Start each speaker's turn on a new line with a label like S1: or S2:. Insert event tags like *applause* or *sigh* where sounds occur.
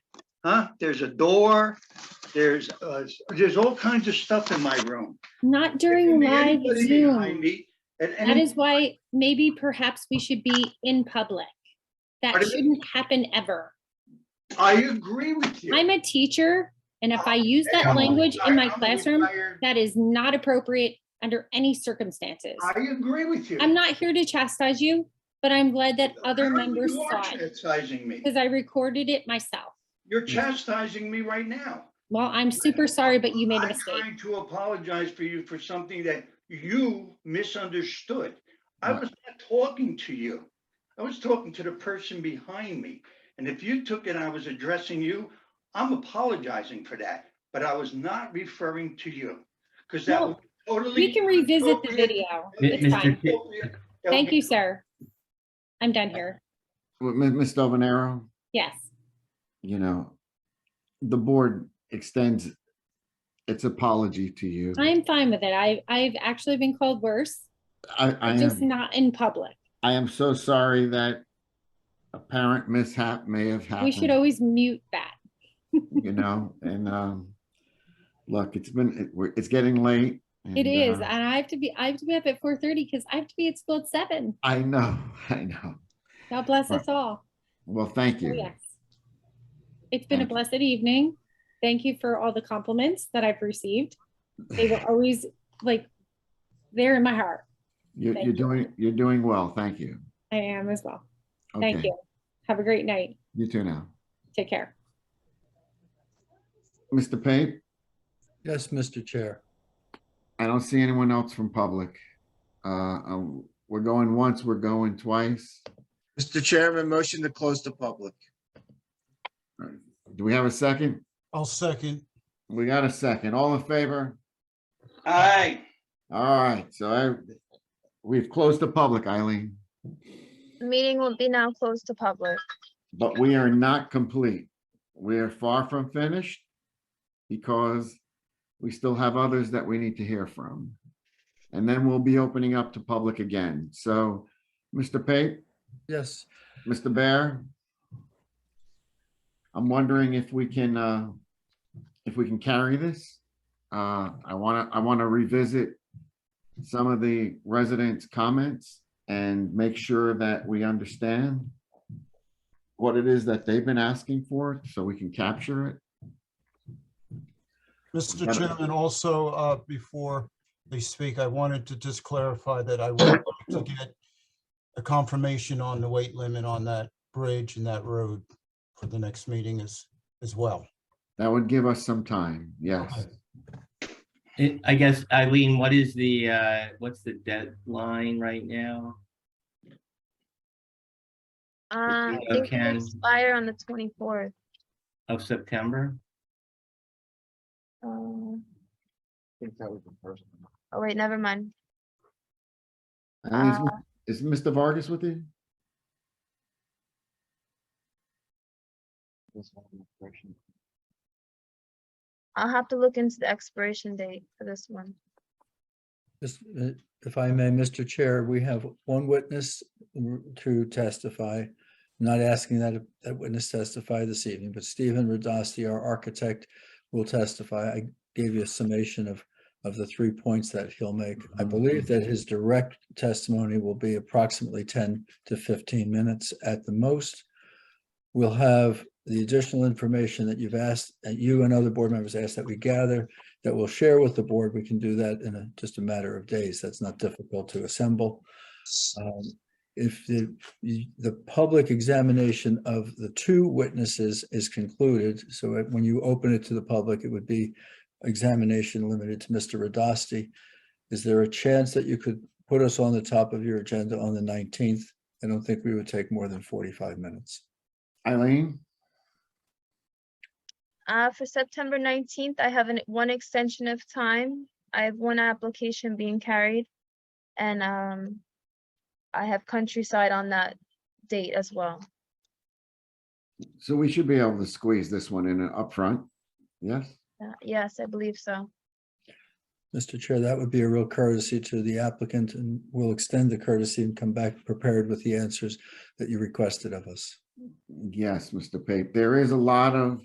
S1: huh? There's a door, there's, uh, there's all kinds of stuff in my room.
S2: Not
S1: There
S2: during
S1: can be
S2: live
S1: anybody behind
S2: Zoom.
S1: me At
S2: That
S1: any,
S2: is why maybe perhaps we should be in public. That
S1: Pardon me?
S2: shouldn't happen ever.
S1: I agree with you.
S2: I'm a teacher and if I
S1: Ah,
S2: use that
S1: I'm-
S2: language in my
S1: I'm
S2: classroom,
S1: retired.
S2: that is not appropriate under any circumstances.
S1: I agree with you.
S2: I'm not here to chastise you, but I'm glad that other
S1: Apparently
S2: members
S1: you are
S2: saw it
S1: Chastising me.
S2: because I recorded it myself.
S1: You're chastising me right now.
S2: Well, I'm super sorry, but you made a
S1: I'm
S2: mistake.
S1: trying to apologize for you for something that you misunderstood. I was not talking to you. I was talking to the person behind me. And if you took it, I was addressing you. I'm apologizing for that, but I was not referring to you because that
S2: No,
S1: would be totally.
S2: We can revisit the
S1: appropriate-
S2: video.
S3: Mi-
S2: It's
S3: Mr.
S2: fine.
S3: Ki-
S1: Appropriate- that would
S2: Thank
S1: be-
S2: you, sir. I'm done here.
S3: Well, Mi- Ms. Dovenero,
S2: Yes.
S3: you know, the board extends its apology to you. I,
S2: I'm fine with it. I, I've actually been called worse,
S3: I
S2: just
S3: am,
S2: not in public.
S3: I am so sorry that apparent mishap may have
S2: We should
S3: happened,
S2: always mute that.
S3: you know, and, um, look, it's been, it- we're- it's getting late.
S2: It
S3: and,
S2: is,
S3: uh,
S2: and I have to be, I have to be up at four thirty because I have to be at school at seven.
S3: I know, *laughs* I know.
S2: God bless
S3: Right.
S2: us all.
S3: Well, thank
S2: Oh,
S3: you.
S2: Yes. It's been a
S3: Thank you.
S2: blessed evening. Thank you for all the compliments that I've received. They were always like, they're in my heart.
S3: You're,
S2: Thank
S3: you're
S2: you.
S3: doing, you're doing well. Thank you.
S2: I am as well. Thank
S3: Okay.
S2: you. Have a great night.
S3: You too now.
S2: Take care.
S3: Mr. Pape,
S4: Yes, Mr. Chair.
S3: I don't see anyone else from public. Uh, um, we're going once, we're going twice.
S5: Mr. Chairman, motion to close the public.
S3: Do we have a second?
S6: I'll second.
S3: We got a second. All in favor?
S1: Aye.
S3: All right, so I, we've closed the public, Eileen,
S7: The Meeting will be now closed to public.
S3: but we are not complete. We are far from finished because we still have others that we need to hear from. And then we'll be opening up to public again. So, Mr. Pape?
S4: Yes,
S3: Mr. Bear? I'm wondering if we can, uh, if we can carry this? Uh, I wanna, I wanna revisit some of the residents' comments and make sure that we understand what it is that they've been asking for, so we can capture it.
S6: Mr.
S3: Madam-
S6: Chairman, also, uh, before they speak, I wanted to just clarify that I would like to get a confirmation on the weight limit on that bridge and that road for the next meeting as, as well.
S3: That would give us some time, yes.
S8: I- I guess, Eileen, what is the, uh, what's the deadline right now?
S7: Uh, I
S8: you
S7: think
S8: can-
S7: it'll expire on the twenty-fourth.
S8: Of September?
S7: Oh,
S5: I think that was the first. one.
S7: wait, never mind.
S3: Eileen, Is is Mr. Vargas with you?
S5: This one was the first one.
S7: I'll have to look into the expiration date for this one.
S4: this- uh, if I may, Mr. Chair, we have one witness r- to testify. Not asking that that witness testify this evening, but Stephen Radasti, our architect, will testify. I gave you a summation of of the three points that he'll make. I believe that his direct testimony will be approximately 10 to 15 minutes at the most. We'll have the additional information that you've asked, that you and other board members asked that we gather, that we'll share with the board. We can do that in a, just a matter of days. That's not difficult to assemble. Um, If the, the the public examination of the two witnesses is concluded, so it- when you open it to the public, it would be examination limited to Mr. Radasti. Is there a chance that you could put us on the top of your agenda on the 19th? I don't think we would take more than 45 minutes.
S3: Eileen?
S7: Uh, for September nineteenth, I have an, one extension of time. I have one application being carried. And, um, I have countryside on that date as well.
S3: So we should be able to squeeze this one in upfront, yes?
S7: Uh, Yes, I believe so.
S4: Mr. Chair, that would be a real courtesy to the applicant and we'll extend the courtesy and come back prepared with the answers that you requested of us.
S3: Yes, Mr. Pape, there is a lot of